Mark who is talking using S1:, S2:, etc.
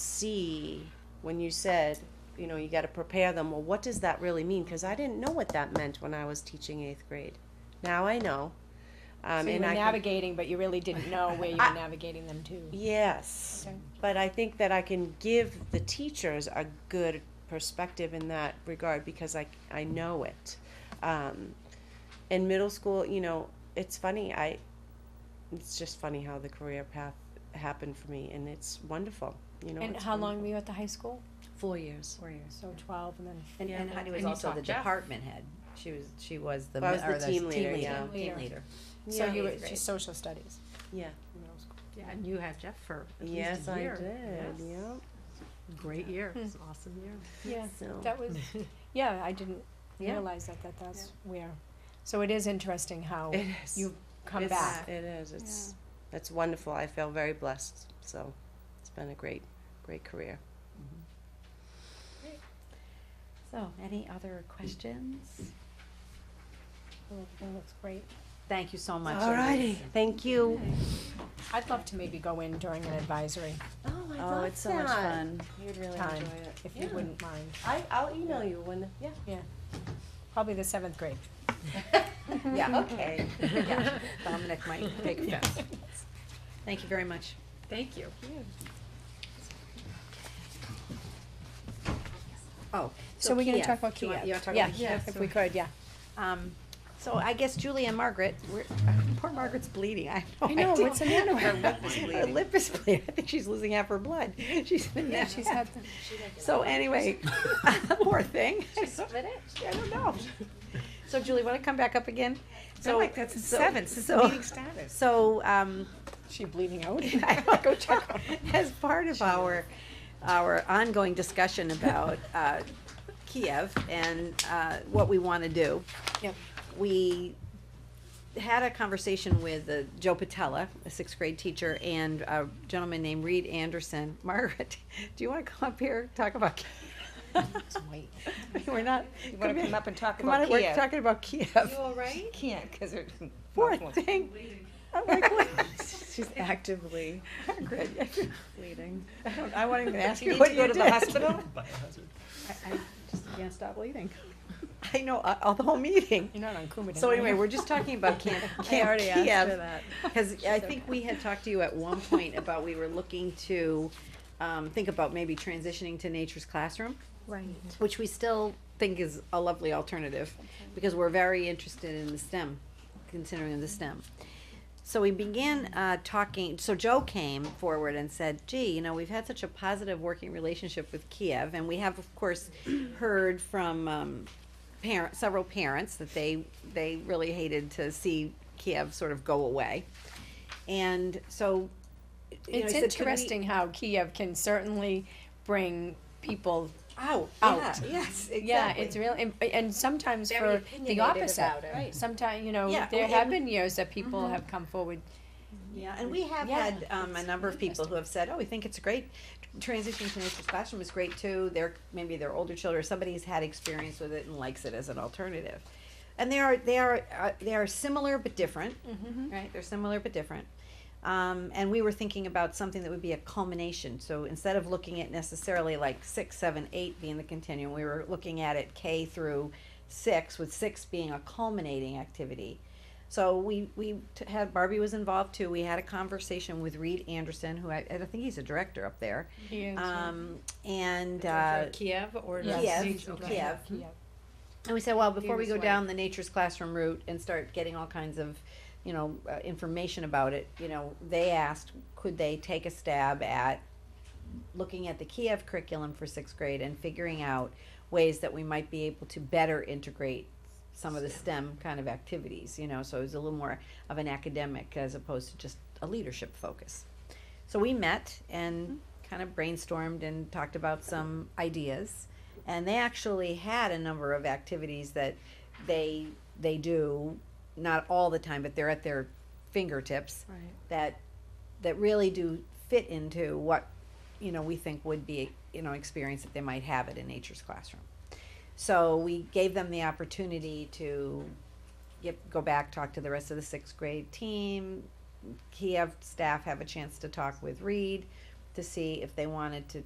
S1: see when you said, you know, you gotta prepare them, well, what does that really mean? Cause I didn't know what that meant when I was teaching eighth grade. Now I know. Um,
S2: So you
S1: and
S2: were
S1: I can-
S2: navigating, but you really didn't know where you were
S1: I-
S2: navigating them to.
S1: Yes,
S2: Okay.
S1: but I think that I can give the teachers a good perspective in that regard because I, I know it. Um, in middle school, you know, it's funny, I, it's just funny how the career path happened for me and it's wonderful, you know.
S2: And
S1: it's
S2: how long
S1: wonderful.
S2: were you at the high school?
S3: Four years.
S4: Four years.
S2: So twelve and then.
S4: And,
S1: Yeah.
S4: and Heidi was
S5: And you
S4: also
S5: taught
S4: the
S5: Jeff.
S4: department head. She was, she was the,
S1: I was
S4: mi- or
S1: the
S4: the
S1: team
S4: team
S1: leader,
S4: leader,
S1: yeah.
S4: team
S2: Leader.
S4: leader.
S2: So
S1: Yeah.
S2: you were,
S5: Eighth grade.
S2: she's social studies
S1: Yeah,
S2: in middle school.
S5: Yeah, and you had Jeff for at least
S1: yes,
S5: a
S1: I
S5: year.
S1: did, yeah.
S5: yeah. Great year, it's an awesome year.
S2: Yeah,
S1: So-
S2: that was, yeah, I didn't
S5: Yeah.
S2: realize that, that that's where. So it is interesting how
S1: It is.
S2: you come
S1: It's-
S2: back.
S1: It is, it's, it's wonderful, I feel very blessed, so it's been a great, great career.
S4: So, any other questions?
S2: Oh, It looks great.
S4: Thank you so much.
S1: Alrighty, thank you.
S2: I'd love to maybe go in during an advisory
S1: Oh, I
S3: Oh, it's so much fun.
S1: You'd really
S2: time,
S1: enjoy it.
S2: if you
S1: Yeah.
S2: wouldn't mind.
S1: I, I'll email you when, yeah.
S2: Probably the seventh grade.
S4: Yeah, okay. Yeah, Dominic might take offense. Thank you very much.
S5: Thank you.
S4: Oh.
S2: So we're gonna
S4: Kiev.
S2: talk about
S4: Do you want-
S2: Kiev.
S4: You wanna talk about Kiev?
S2: Yeah, if we could, yeah.
S4: Um, so I guess Julie and Margaret, we're, poor Margaret's bleeding, I know.
S2: I know, what's the matter with
S4: Her lip is bleeding. Her lip is bleeding, I think she's losing half her blood. She's been
S2: Yeah,
S4: there.
S2: she's had, the-
S4: So anyway, poor thing. She spit it? I don't know. So Julie, wanna come back up again? So
S3: like that's
S4: so-
S3: seven since the
S4: so-
S3: meeting started.
S4: So, um,
S2: she bleeding out.
S4: I will go check on it. as part of our, our ongoing discussion about uh, Kiev and uh, what we want to do.
S2: Yep.
S4: We had a conversation with uh, Joe Patella, a sixth grade teacher, and a gentleman named Reed Anderson. Margaret, do you want to come up here, talk about? Kiev? We're not.
S3: You wanna come up and talk
S4: Come
S3: about
S4: on, we're
S3: Kiev?
S4: talking about Kiev.
S3: all right? Can't, because her.
S4: Poor thing. I'm like, what?
S3: She's actively
S4: Margaret,
S3: bleeding.
S4: I don't- I won't even ask you
S3: need
S4: what
S3: to
S4: you
S3: go to the
S4: did.
S3: hospital?
S4: I just can't stop bleeding. I know, uh, uh, the whole meeting.
S2: You're not on Coumadin.
S4: So
S2: are you?
S4: anyway, we're just talking about Camp,
S3: I
S4: Camp
S3: already asked her
S4: Kiev.
S3: that.
S4: Cause I think we had talked to you at one point about we were looking to, um, think about maybe transitioning to nature's classroom. Right. Which we still think is a lovely alternative, because we're very interested in the STEM, considering the STEM. So we began uh, talking. So Joe came forward and said, "Gee, you know, we've had such a positive working relationship with Kiev, and we have, of course, heard from um, parent, several parents that they they really hated to see Kiev sort of go away." And so, you know,
S2: It's
S4: he said, "Could we-"
S2: interesting how Kiev can certainly bring people
S4: Out,
S2: Out.
S4: Yeah, yes, exactly.
S2: Yeah, it's real, and, and sometimes
S3: Very
S2: for the
S3: opinionated
S2: opposite.
S3: about it. Right.
S2: Sometimes, you know,
S4: Yeah,
S2: there
S4: and-
S2: have been years that people have come forward.
S4: Yeah, and we have
S2: Yeah,
S4: had um, a number of people who have said, "Oh, we think it's great. Transitioning to nature's classroom is great too. They're maybe their older children. Somebody's had experience with it and likes it as an alternative." And they are they are uh, they are similar but different, right? They're similar but different. Um, and we were thinking about something that would be a culmination. So instead of looking at necessarily like six, seven, eight being the continuum, we were looking at it K through six, with six being a culminating activity. So we, we t- had, Barbie was involved too. We had a conversation with Reed Anderson, who I, I think he's a director up there.
S2: Years, yeah.
S4: Um, and, uh,
S3: Kiev or?
S2: Yes.
S4: Kiev,
S5: Okay.
S4: Kiev.
S2: Kiev.
S4: And we said, well, before we
S3: Views
S4: go
S3: like-
S4: down the nature's classroom route and start getting all kinds of, you know, uh, information about it, you know, they asked, could they take a stab at looking at the Kiev curriculum for sixth grade and figuring out ways that we might be able to better integrate some of the STEM kind of activities, you know, so it was a little more of an academic as opposed to just a leadership focus. So we met and kind of brainstormed and talked about some ideas. And they actually had a number of activities that they they do not all the time, but they're at their fingertips
S3: Right.
S4: that that really do fit into what you know we think would be you know experience that they might have at a nature's classroom. So we gave them the opportunity to get, go back, talk to the rest of the sixth grade team. Kiev staff have a chance to talk with Reed to see if they wanted to